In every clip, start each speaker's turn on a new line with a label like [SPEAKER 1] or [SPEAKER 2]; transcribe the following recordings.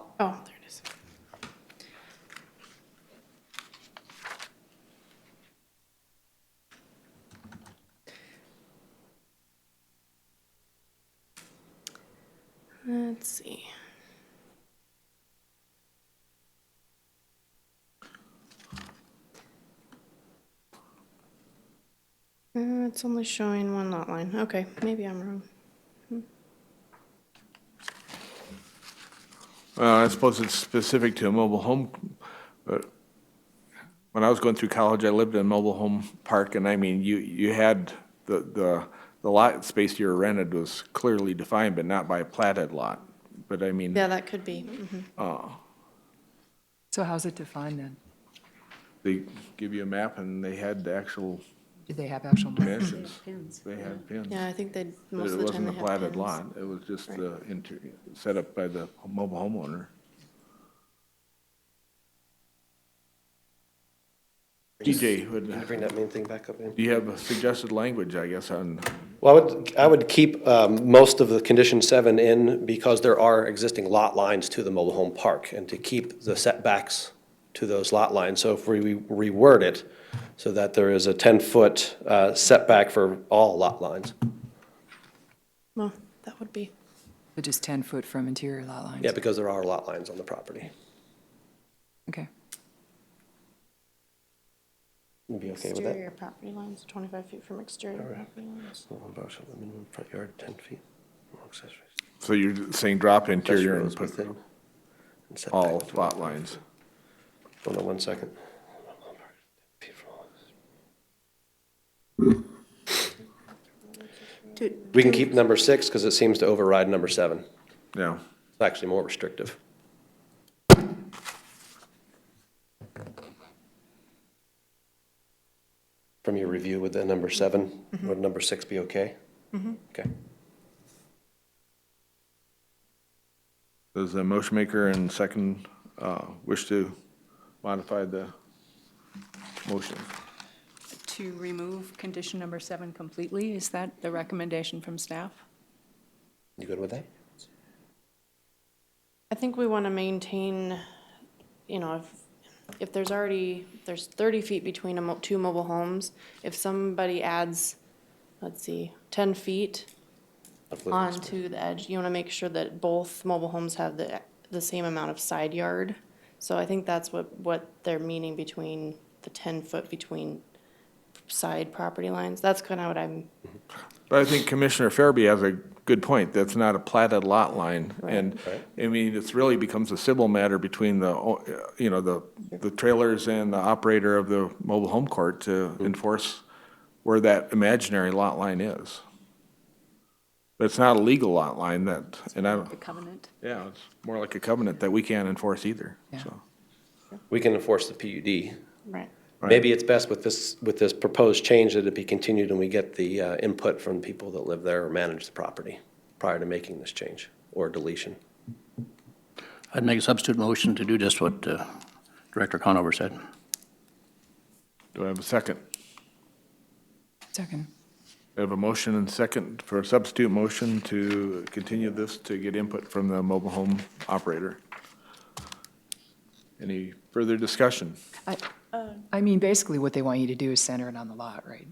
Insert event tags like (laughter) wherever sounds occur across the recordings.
[SPEAKER 1] Oh.
[SPEAKER 2] Oh, Let's see. Uh, it's only showing one lot line. Okay, maybe I'm wrong.
[SPEAKER 1] Well, I suppose it's specific to a mobile home, but when I was going through college, I lived in a mobile home park, and I mean, you, you had the, the, the lot space you were rented was clearly defined, but not by a platted lot. But I mean,
[SPEAKER 2] Yeah, that could be.
[SPEAKER 1] Mm-hmm.
[SPEAKER 2] mhm.
[SPEAKER 3] So how's it defined then?
[SPEAKER 1] they give you a map, and they had the actual
[SPEAKER 3] Do they have actual markers?
[SPEAKER 1] dimensions. They had pins.
[SPEAKER 2] Yeah, I think they,
[SPEAKER 1] But
[SPEAKER 2] most
[SPEAKER 1] it
[SPEAKER 2] of the time
[SPEAKER 1] wasn't
[SPEAKER 2] they
[SPEAKER 1] a
[SPEAKER 2] have
[SPEAKER 1] platted
[SPEAKER 2] pins.
[SPEAKER 1] lot, it was just the inter, set up by the mobile homeowner. DJ, would,
[SPEAKER 4] Can you bring that main thing back up, Ian?
[SPEAKER 1] do you have a suggested language, I guess, on,
[SPEAKER 4] Well, I would, I would keep um, most of the condition seven in because there are existing lot lines to the mobile home park and to keep the setbacks to those lot lines. So if we reword it so that there is a 10-foot uh, setback for all lot lines.
[SPEAKER 2] Well, that would be,
[SPEAKER 3] But just 10-foot from interior lot lines?
[SPEAKER 4] Yeah, because there are lot lines on the property.
[SPEAKER 3] Okay.
[SPEAKER 4] You'd be okay with that?
[SPEAKER 2] exterior property lines, 25 feet from exterior property lines.
[SPEAKER 4] Home bar shall have minimum front yard 10 feet, no accessories.
[SPEAKER 1] so you're saying drop
[SPEAKER 4] Accessory
[SPEAKER 1] interior and
[SPEAKER 4] is
[SPEAKER 1] put
[SPEAKER 4] within and setback
[SPEAKER 1] all
[SPEAKER 4] within.
[SPEAKER 1] lot lines?
[SPEAKER 4] Hold on one second. We can keep number six because it seems to override number seven.
[SPEAKER 1] No,
[SPEAKER 4] It's actually more restrictive. From your review with the number seven, would number six be okay? Okay.
[SPEAKER 1] does the motion maker and second, uh, wish to modify the motion?
[SPEAKER 5] To remove condition number seven completely, is that the recommendation from staff?
[SPEAKER 4] You good with that?
[SPEAKER 2] I think we want to maintain, you know, if, if there's already, there's thirty feet between a mo- two mobile homes, if somebody adds, let's see, ten feet
[SPEAKER 4] Of living space.
[SPEAKER 2] onto the edge, you want to make sure that both mobile homes have the, the same amount of side yard. So I think that's what, what they're meaning between the ten foot between side property lines. That's kind of what I'm,
[SPEAKER 1] But I think Commissioner Farby has a good point. That's not a platted lot line. And, I mean, it's really becomes a civil matter between the, o- uh, you know, the, the trailers and the operator of the mobile home court to enforce where that imaginary lot line is. But it's not a legal lot line that, and I,
[SPEAKER 5] The
[SPEAKER 1] don't-
[SPEAKER 5] covenant?
[SPEAKER 1] yeah, it's more like a covenant that we can't enforce either,
[SPEAKER 3] Yeah.
[SPEAKER 1] so.
[SPEAKER 4] We can enforce the PUD.
[SPEAKER 2] right.
[SPEAKER 1] Right.
[SPEAKER 4] Maybe it's best with this, with this proposed change that it be continued and we get the uh, input from people that live there or manage the property prior to making this change or deletion.
[SPEAKER 6] I'd make a substitute motion to do just what uh, Director Conover said.
[SPEAKER 1] Do I have a second?
[SPEAKER 3] Second.
[SPEAKER 1] I have a motion and second for a substitute motion to continue this to get input from the mobile home operator. Any further discussion?
[SPEAKER 3] I, I mean, basically what they want you to do is center it on the lot, right?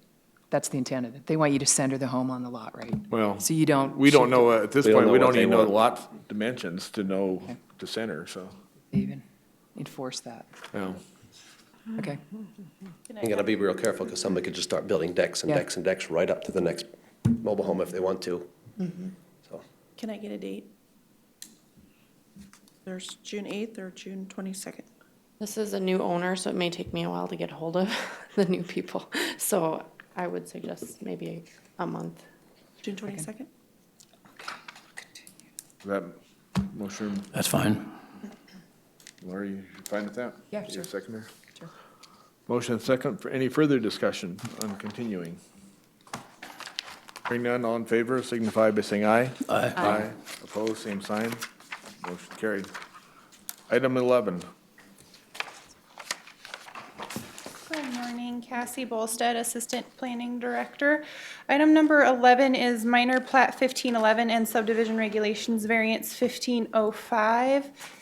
[SPEAKER 3] That's the intent of it. They want you to center the home on the lot, right?
[SPEAKER 1] Well,
[SPEAKER 3] So you don't.
[SPEAKER 1] We don't
[SPEAKER 3] shift
[SPEAKER 1] know, at this
[SPEAKER 4] We don't
[SPEAKER 1] point, we
[SPEAKER 4] know what
[SPEAKER 1] don't
[SPEAKER 4] they
[SPEAKER 1] even know the
[SPEAKER 4] want.
[SPEAKER 1] lot dimensions to know the center, so.
[SPEAKER 3] it, Even enforce that. Okay.
[SPEAKER 4] You gotta be real careful because somebody could just start building decks and
[SPEAKER 3] Yeah.
[SPEAKER 4] decks and decks right up to the next mobile home if they want to. So,
[SPEAKER 7] Can I get a date? There's June 8th or June 22nd.
[SPEAKER 2] This is a new owner, so it may take me a while to get hold of (laughs) the new people. So I would suggest maybe a month.
[SPEAKER 7] June 22nd?
[SPEAKER 1] Is That motion,
[SPEAKER 6] That's fine.
[SPEAKER 1] Laurie, you fine with that?
[SPEAKER 3] Yeah,
[SPEAKER 1] You
[SPEAKER 3] sure.
[SPEAKER 1] Second there?
[SPEAKER 3] Sure.
[SPEAKER 1] Motion and second for any further discussion on continuing. Hearing none, all in favor, signify by saying aye.
[SPEAKER 6] Aye.
[SPEAKER 1] Aye. Opposed, same sign. Motion carried. Item 11,
[SPEAKER 8] Good morning, Cassie Bolstead, Assistant Planning Director. Item number 11 is oh minor plat 1511 and subdivision regulations variance 1505.